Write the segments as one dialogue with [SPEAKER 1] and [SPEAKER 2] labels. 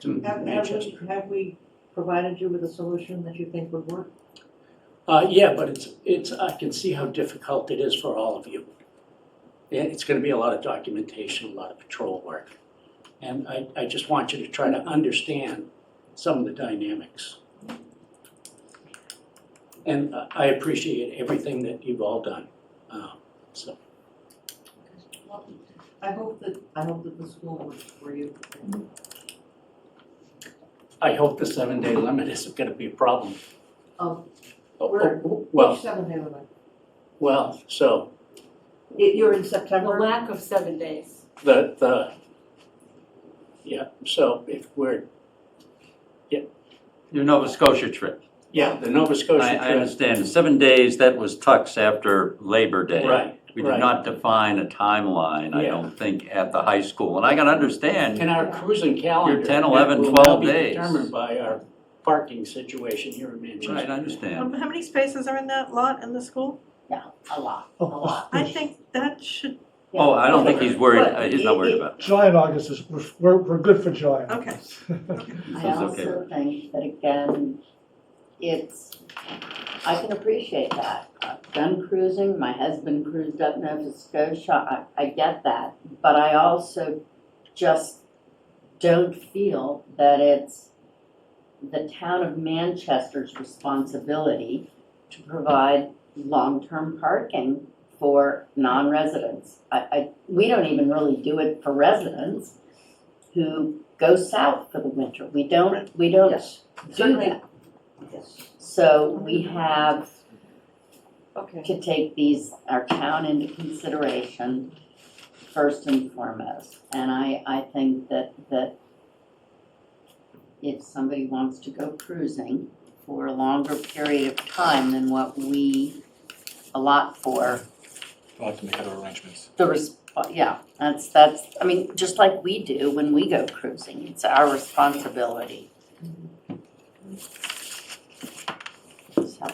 [SPEAKER 1] to
[SPEAKER 2] Have, have we,
[SPEAKER 1] Manchester.
[SPEAKER 2] have we provided you with a solution that you think would work?
[SPEAKER 1] Uh, yeah, but it's, it's, I can see how difficult it is for all of you. Yeah, it's gonna be a lot of documentation, a lot of patrol work. And I, I just want you to try to understand some of the dynamics. And I- I appreciate everything that you've all done, um, so.
[SPEAKER 2] I hope that, I hope that the school works for you.
[SPEAKER 1] I hope the seven-day limit isn't gonna be a problem.
[SPEAKER 2] Oh.
[SPEAKER 1] Oh,
[SPEAKER 2] We're-
[SPEAKER 1] oh, Well,
[SPEAKER 2] Seven day limit.
[SPEAKER 1] well, so
[SPEAKER 2] Y- You're in
[SPEAKER 3] The
[SPEAKER 2] September?
[SPEAKER 3] lack of seven days.
[SPEAKER 1] the, the, yeah, so if we're,
[SPEAKER 4] Your Nova Scotia trip.
[SPEAKER 1] yeah, the Nova Scotia
[SPEAKER 4] I,
[SPEAKER 1] trip.
[SPEAKER 4] I understand, seven days, that was tucks after Labor Day.
[SPEAKER 1] Right,
[SPEAKER 4] We
[SPEAKER 1] right.
[SPEAKER 4] did not define a timeline, I
[SPEAKER 1] Yeah.
[SPEAKER 4] don't think, at the high school, and I can
[SPEAKER 1] In
[SPEAKER 4] understand.
[SPEAKER 1] our cruising calendar.
[SPEAKER 4] Your 10, 11,
[SPEAKER 1] that will
[SPEAKER 4] 12
[SPEAKER 1] now be
[SPEAKER 4] days.
[SPEAKER 1] Determined by our parking situation here in Manchester.
[SPEAKER 4] Right, I understand.
[SPEAKER 5] Um, how many spaces are in that lot in the school?
[SPEAKER 3] A lot, a
[SPEAKER 6] Oh,
[SPEAKER 3] lot.
[SPEAKER 5] I think that should,
[SPEAKER 4] Oh, I don't think he's worried,
[SPEAKER 2] But
[SPEAKER 4] uh, he's not worried
[SPEAKER 2] it-
[SPEAKER 4] about
[SPEAKER 6] July and August is, we're- we're, we're good for July and
[SPEAKER 5] Okay.
[SPEAKER 6] August.
[SPEAKER 4] it. This
[SPEAKER 7] I
[SPEAKER 4] is okay.
[SPEAKER 7] also think that again, it's, I can appreciate that. I've done cruising, my husband cruised up Nova Scotia, I, I get that. But I also just don't feel that it's the town of Manchester's responsibility to provide long-term parking for non-residents. I, I, we don't even really do it for residents who go south for the winter. We don't, we don't
[SPEAKER 2] Yes,
[SPEAKER 7] do
[SPEAKER 2] certainly.
[SPEAKER 7] that.
[SPEAKER 2] Yes.
[SPEAKER 7] So we have
[SPEAKER 2] Okay.
[SPEAKER 7] to take these, our town into consideration first and foremost. And I, I think that, that if somebody wants to go cruising for a longer period of time than what we allot for,
[SPEAKER 8] We'll have to make other arrangements.
[SPEAKER 7] the resp, yeah, that's, that's, I mean, just like we do when we go cruising, it's our responsibility. So.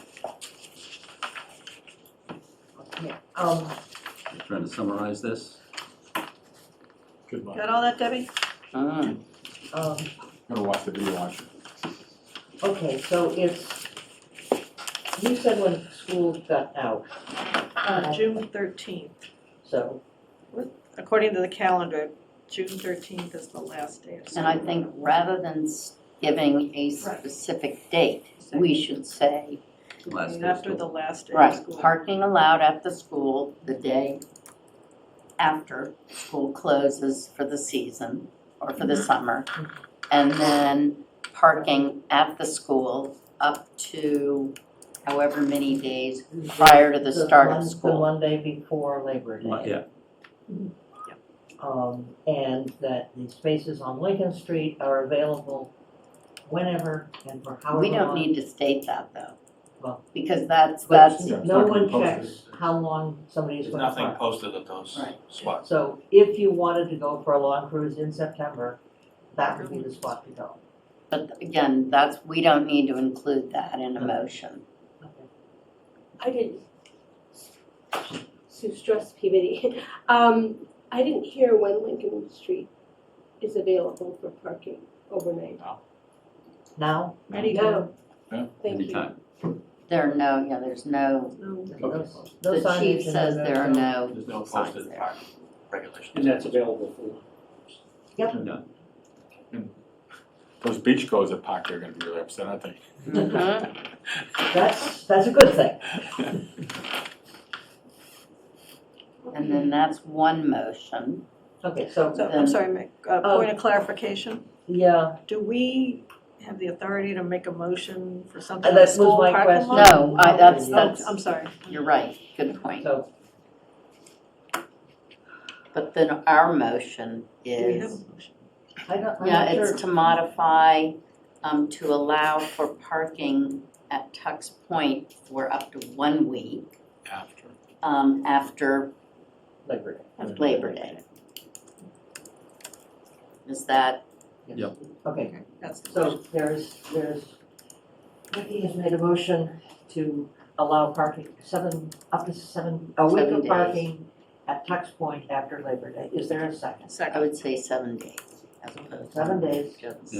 [SPEAKER 2] Um,
[SPEAKER 4] Trying to summarize this?
[SPEAKER 8] Good luck.
[SPEAKER 5] got all that, Debbie?
[SPEAKER 7] mm.
[SPEAKER 2] um,
[SPEAKER 8] I'm gonna watch the video on
[SPEAKER 2] okay, so it's, you said when school got out,
[SPEAKER 5] Uh, June thirteenth,
[SPEAKER 2] so,
[SPEAKER 5] according to the calendar, June thirteenth is the last day of school.
[SPEAKER 7] And I think rather than s- giving a specific date, we should say,
[SPEAKER 4] Last day of
[SPEAKER 5] After
[SPEAKER 4] school.
[SPEAKER 5] the last day of
[SPEAKER 7] right,
[SPEAKER 5] school.
[SPEAKER 7] parking allowed at the school the day after school closes for the season or for
[SPEAKER 2] Mm-hmm.
[SPEAKER 7] the summer. And then parking at the school up to however many days prior to the start
[SPEAKER 2] Mon-
[SPEAKER 7] of
[SPEAKER 2] The
[SPEAKER 7] school.
[SPEAKER 2] Monday before Labor Day.
[SPEAKER 4] Yeah,
[SPEAKER 2] Um, and that the spaces on Lincoln Street are available whenever and for however long.
[SPEAKER 7] We don't need to state that though,
[SPEAKER 2] Well-
[SPEAKER 7] because that's,
[SPEAKER 2] But
[SPEAKER 7] that's,
[SPEAKER 8] Yeah, it's
[SPEAKER 2] no
[SPEAKER 8] not gonna
[SPEAKER 2] one
[SPEAKER 8] be posted.
[SPEAKER 2] checks how long somebody's
[SPEAKER 9] There's
[SPEAKER 2] gonna
[SPEAKER 9] nothing
[SPEAKER 2] park.
[SPEAKER 9] posted at those
[SPEAKER 7] Right.
[SPEAKER 9] spots.
[SPEAKER 2] So if you wanted to go for a long cruise in September, that would be the spot to go.
[SPEAKER 7] but again, that's, we don't need to include that in a
[SPEAKER 2] Uh-huh.
[SPEAKER 7] motion.
[SPEAKER 10] I didn't, Sue Strauss Peabody. Um, I didn't hear when Lincoln Street is available for parking overnight.
[SPEAKER 2] Now,
[SPEAKER 10] No.
[SPEAKER 8] Yeah.
[SPEAKER 10] Thank you.
[SPEAKER 4] anytime.
[SPEAKER 7] There are no, yeah, there's no,
[SPEAKER 1] Okay.
[SPEAKER 2] those, those
[SPEAKER 7] the
[SPEAKER 2] signage
[SPEAKER 7] chief
[SPEAKER 2] and
[SPEAKER 7] says there are no
[SPEAKER 9] There's no
[SPEAKER 7] signs
[SPEAKER 9] posted
[SPEAKER 7] there.
[SPEAKER 9] parking regulations.
[SPEAKER 1] And that's available for.
[SPEAKER 4] No.
[SPEAKER 8] Those beach goers that park there are gonna be really upset, I think.
[SPEAKER 7] Mhm.
[SPEAKER 2] That's, that's a good thing.
[SPEAKER 7] And then that's one motion.
[SPEAKER 2] Okay, so,
[SPEAKER 5] So, I'm sorry, Mick, uh,
[SPEAKER 2] Oh.
[SPEAKER 5] point of clarification,
[SPEAKER 2] yeah,
[SPEAKER 5] do we have the authority to make a motion for something
[SPEAKER 2] that
[SPEAKER 5] in the
[SPEAKER 2] was
[SPEAKER 5] school
[SPEAKER 2] my
[SPEAKER 5] parking
[SPEAKER 2] question.
[SPEAKER 5] lot?
[SPEAKER 7] No, I- that's-
[SPEAKER 5] Oh,
[SPEAKER 7] that's-
[SPEAKER 5] I'm sorry.
[SPEAKER 7] You're right, good point.
[SPEAKER 2] So,
[SPEAKER 7] But then our motion
[SPEAKER 5] Do we have a
[SPEAKER 7] is,
[SPEAKER 5] motion?
[SPEAKER 2] I don't, I'm
[SPEAKER 7] yeah,
[SPEAKER 2] not sure.
[SPEAKER 7] it's to modify, um, to allow for parking at Tuck's Point for up to one week,
[SPEAKER 8] After.
[SPEAKER 7] um, after
[SPEAKER 2] Labor Day.
[SPEAKER 7] Labor Day. Is that,
[SPEAKER 2] Yes.
[SPEAKER 4] Yep.
[SPEAKER 2] Okay,
[SPEAKER 5] Okay, That's the motion.
[SPEAKER 2] so there's, there's, Vicky has made a motion to allow parking, seven, up to seven, a week
[SPEAKER 7] Seven
[SPEAKER 2] of
[SPEAKER 7] days.
[SPEAKER 2] parking at Tux Point after Labor Day. Is there a second?
[SPEAKER 7] I
[SPEAKER 5] Second.
[SPEAKER 7] would say seven days as opposed to.
[SPEAKER 2] Seven days.
[SPEAKER 7] Just-